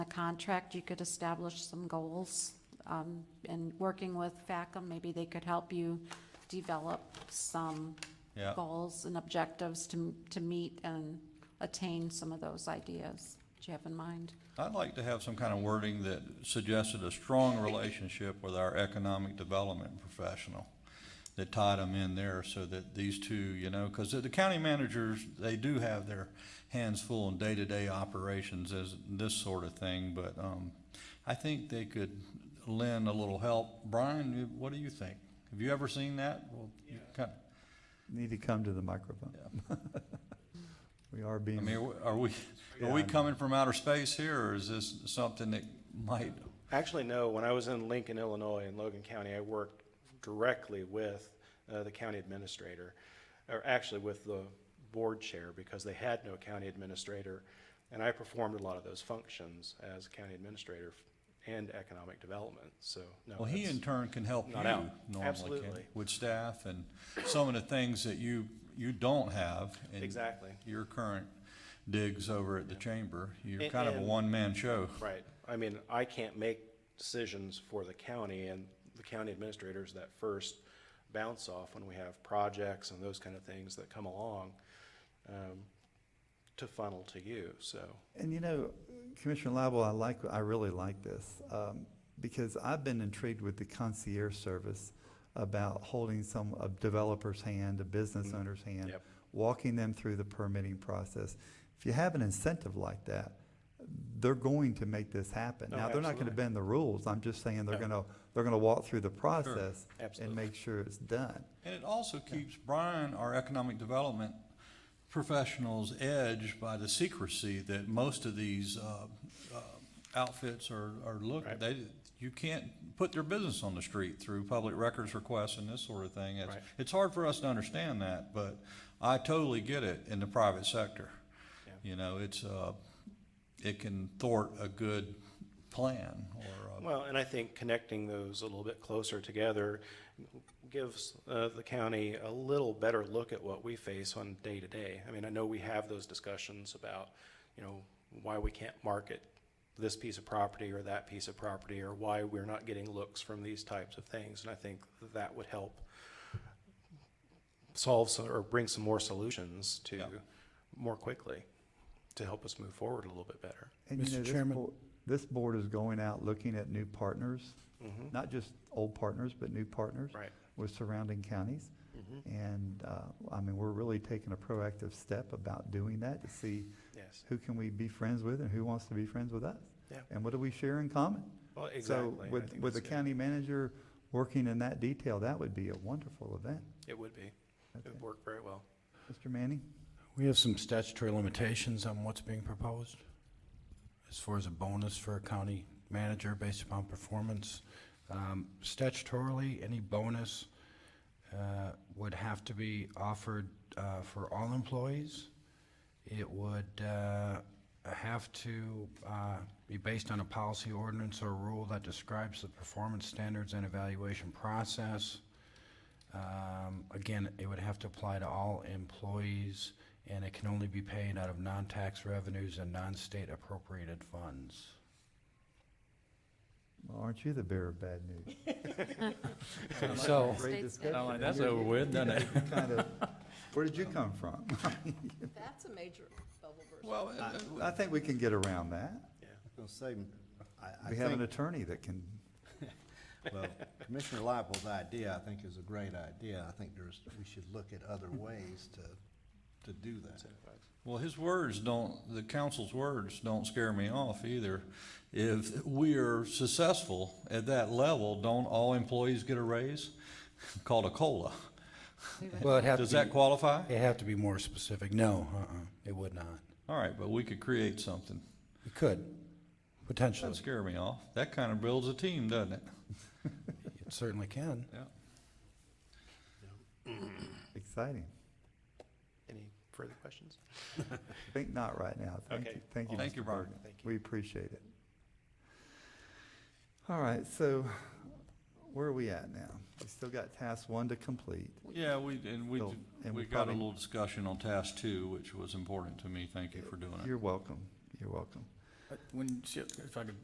contract, you could establish some goals. Um, and working with FACM, maybe they could help you develop some Yeah. goals and objectives to, to meet and attain some of those ideas. Do you have in mind? I'd like to have some kind of wording that suggested a strong relationship with our economic development professional that tied them in there so that these two, you know, because the county managers, they do have their hands full in day-to-day operations as this sort of thing, but, um, I think they could lend a little help. Brian, you- what do you think? Have you ever seen that? Well, you kind- Need to come to the microphone. We are I being, mean, are we, are we coming from outer space here or is this something that might, Actually, no. When I was in Lincoln, Illinois, in Logan County, I worked directly with uh, the county administrator, or actually with the board chair, because they had no county administrator. And I performed a lot of those functions as county administrator and economic development, so no. Well, he that's- in turn can help you not out. normally, can, Absolutely. with staff and some of the things that you, you don't have. in Exactly. Your current digs over at the chamber, you're And- kind of a and- one-man show. Right. I mean, I can't make decisions for the county and the county administrators that first bounce off when we have projects and those kind of things that come along um, to funnel to you, so. and you know, Commissioner Lible, I like, I really like this, um, because I've been intrigued with the concierge service about holding some, a developer's hand, a business owner's hand, Mm-hmm. Yep. walking them through the permitting process. If you have an incentive like that, they're going to make this happen. Oh, Now, they're not gonna absolutely. bend the rules, I'm just saying they're No. gonna, they're gonna walk through the process and Absolutely. make sure it's done. And it also keeps Brian, our economic development professionals, edge by the secrecy that most of these, uh, uh, outfits are, are looking, Right. they, you can't put their business on the street through public records requests and this sort of thing. It's, Right. it's hard for us to understand that, but I totally get it in the private sector. Yeah. You know, it's, uh, it can thwart a good plan or, Well, and I think connecting those a little bit closer together gives uh, the county a little better look at what we face on day to day. I mean, I know we have those discussions about, you know, why we can't market this piece of property or that piece of property, or why we're not getting looks from these types of things. And I think that would help solve some- or bring some more solutions to, Yeah. more quickly, to help us move forward a little bit better. And Mr. you know, this Chairman. board, this board is going out looking at new partners, not just old partners, but new partners. Mm-hmm. Right. Mm-hmm. With surrounding counties. And, uh, I mean, we're really taking a proactive step about doing that to see Yes. who can we be friends with and who wants to be friends with us? Yeah. And what do we share in common? Well, exactly. So I with, think with the that's good. county manager working in that detail, that would be a wonderful event. It would be. It would work very well. Mr. Manning? We have some statutory limitations on what's being proposed as far as a bonus for a county manager based upon performance. Um, Statutorily, any bonus uh, would have to be offered uh, for all employees. It would uh, have to uh, be based on a policy ordinance or rule that describes the performance standards and evaluation process. Um, Again, it would have to apply to all employees, and it can only be paid out of non-tax revenues and non-state appropriated funds. Well, aren't you the bearer of bad news? So, State's Great good. discussion. Sound like that's You're- over with, doesn't it? you kind of- Where did you come from? That's a major bubble uh, burst. well, I- I think we can get around that. I'll say, I, I We have an think, attorney that can, well, Commissioner Leible's idea, I think, is a great idea. I think there's, we should look at other ways to, to do that. Well, his words don't, the council's words don't scare me off either. If we are successful at that level, don't all employees get a raise? Called a COLA. well, it'd have to Does that qualify? It'd have to be more specific. No, uh-uh, it would not. All right, but we could create something. It could, potentially. Doesn't scare me off. That kind of builds a team, doesn't it? It certainly can. Yeah. exciting. Any further questions? I think not right now. Thank you, Okay. thank you. Thank Mr. you, Brian. Bergen. Thank you. We appreciate it. All right, so where are we at now? We still got task one to complete. Yeah, we, and we, So, and we we got a probably- little discussion on task two, which was important to me. Thank you for doing it. You're welcome, you're welcome. When, she- if I could